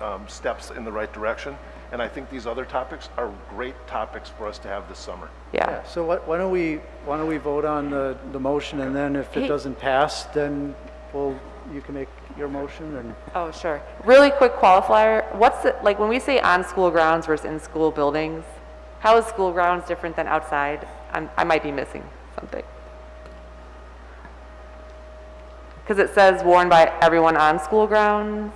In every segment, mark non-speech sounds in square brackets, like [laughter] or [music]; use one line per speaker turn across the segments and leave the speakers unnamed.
um, steps in the right direction. And I think these other topics are great topics for us to have this summer.
yeah.
Yeah, so why why don't we, why don't we vote on the, the motion, and then if
Hey.
it doesn't pass, then we'll, you can make your motion, and
Oh, sure. Really quick qualifier, what's, the- like, when we say on school grounds versus in school buildings, how is school grounds different than outside? I'm, I might be missing something. Because it says worn by everyone on school grounds.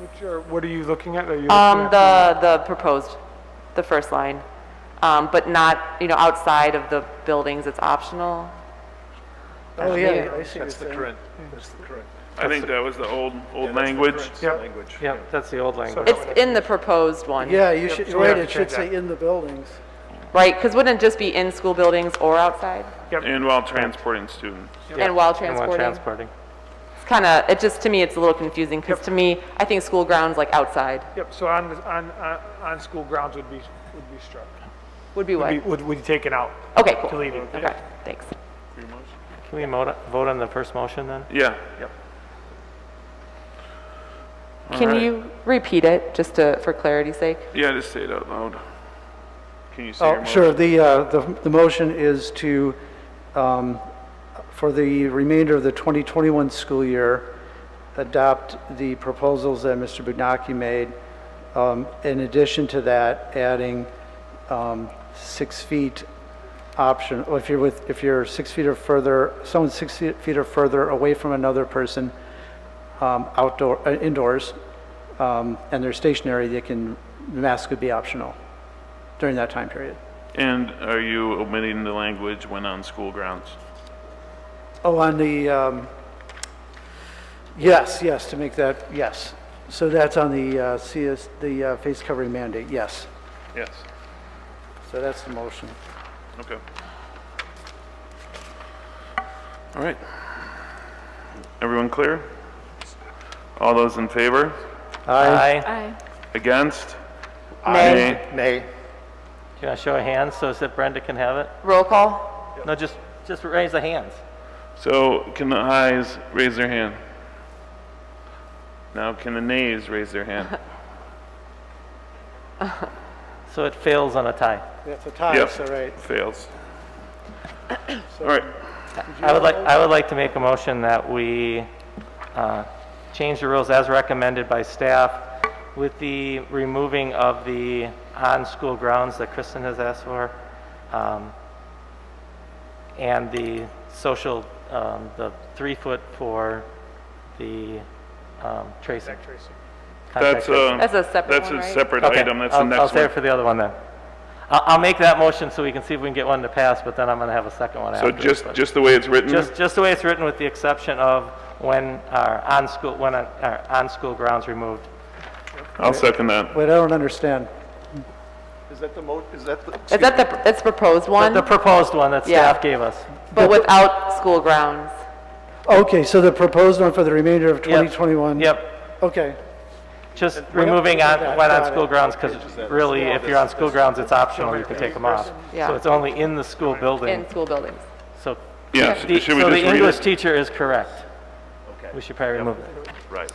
Which are, what are you looking at? Are you looking
Um,
at
the, the proposed, the first line, um, but not, you know, outside of the buildings, it's optional.
Oh, yeah, I see what you're
That's the
saying.
current, that's the current.
I think that was the old,
Yeah,
old
that's the
language.
current
Yep.
Language.
Yeah, that's the old language.
It's in the proposed one.
Yeah, you should,
so we have to
right, it should
change that.
say in the buildings.
Right, because wouldn't it just be in school buildings or outside?
And while transporting students.
And while
And while
transporting?
transporting.
It's kind of, it just, to me, it's a little confusing, because
Yep.
to me, I think school grounds, like outside,
Yep, so on, on, on- on school grounds would be, would be struck.
would be
Would
what?
be- Would, would be taken out.
Okay, cool.
Deleted.
Okay, thanks.
Can we mo- vote on the first motion then?
Yeah.
Can
right.
you repeat it, just to, for clarity's sake?
Yeah, just say it out loud. Can you say your
Oh,
motion?
sure, the, uh, the, the motion is to, um, for the remainder of the 2021 school year, adopt the proposals that Mr. Budnaki made. Um, In addition to that, adding um, six feet option, or if you're with, if you're six feet or further, someone six feet feet or further away from another person, um, outdoor, uh, indoors, um, and they're stationary, they can, the mask could be optional during that time period.
And are you omitting the language when on school grounds?
Oh, on the, um, yes, yes, to make that, yes. So that's on the uh, CS, the uh, face covering mandate, yes.
Yes.
So that's the motion.
Okay. All right. Everyone clear? All those in favor?
Aye.
Aye.
Against?
Nay.
Nay.
Can I show a hand so that Brenda can have it?
Roll call?
No, just, just raise the hands.
So can the ayes raise their hand? Now can the nays raise their hand?
So it fails on a tie.
That's a tie,
Yep.
so right.
Fails.
[coughs]
All right.
I would like, I would like to make a motion that we uh, change the rules as recommended by staff with the removing of the on-school grounds that Kristen has asked for, um, and the social, um, the three-foot for the um, tracing. Contact
That's
tracing.
a,
That's a separate
that's
one,
a
right?
separate
Okay,
item. That's the
I'll- I'll
next
save it
one.
for the other one then. I'll, I'll make that motion so we can see if we can get one to pass, but then I'm going to have a second one
So
after.
just, just the way it's written,
Just, just the way it's written with the exception of when our on-school, when our- our on-school grounds removed.
I'll second that.
Wait, I don't understand.
Is that the mo, is that the?
Is that the, it's proposed
The-
one,
The proposed one that
Yeah.
staff gave us.
but without school grounds?
Okay, so the proposed one for the remainder of
Yep.
2021?
Yep,
Okay,
just removing on, when
Got
on
it.
school grounds, because really, if you're on school grounds, it's optional, you can take them off.
Yeah.
So it's only in the school building,
In school buildings?
so.
Yeah,
the-
should we just
So the
read
English
it?
teacher is correct. We should probably remove it.
Right.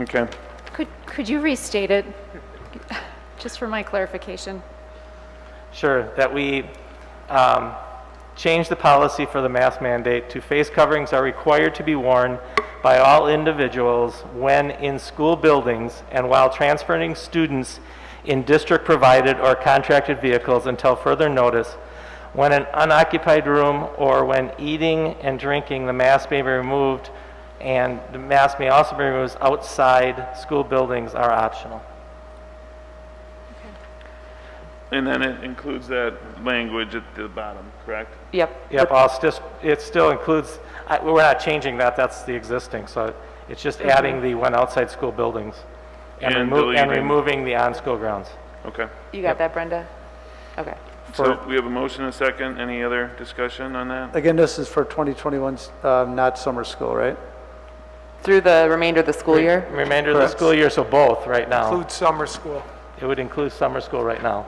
Okay.
Could, could you restate it, just for my clarification?
Sure, that we um, change the policy for the mask mandate to face coverings are required to be worn by all individuals when in school buildings and while transporting students in district-provided or contracted vehicles until further notice, when in unoccupied room or when eating and drinking, the mask may be removed, and the mask may also be removed outside school buildings are optional.
And then it includes that language at the bottom, correct?
Yep.
Yep, I'll still, it still includes, I- we're not changing that, that's the existing, so it's just
Mm-hmm.
adding the one outside school buildings. And
And
remo- and
deleting-
removing the on-school grounds.
Okay.
You got that, Brenda? Okay.
So we have a motion and a second. Any other discussion on that?
again, this is for 2021, um, not summer school, right?
Through the remainder of the school year?
Remainder of the school year, so both, right now.
Include summer school.
It would include summer school right now.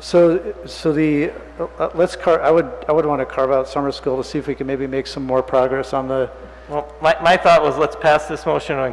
So, so the, uh, uh, let's car, I would, I would want to carve out summer school to see if we can maybe make some more progress on the
Well, my, my thought was, let's pass this motion and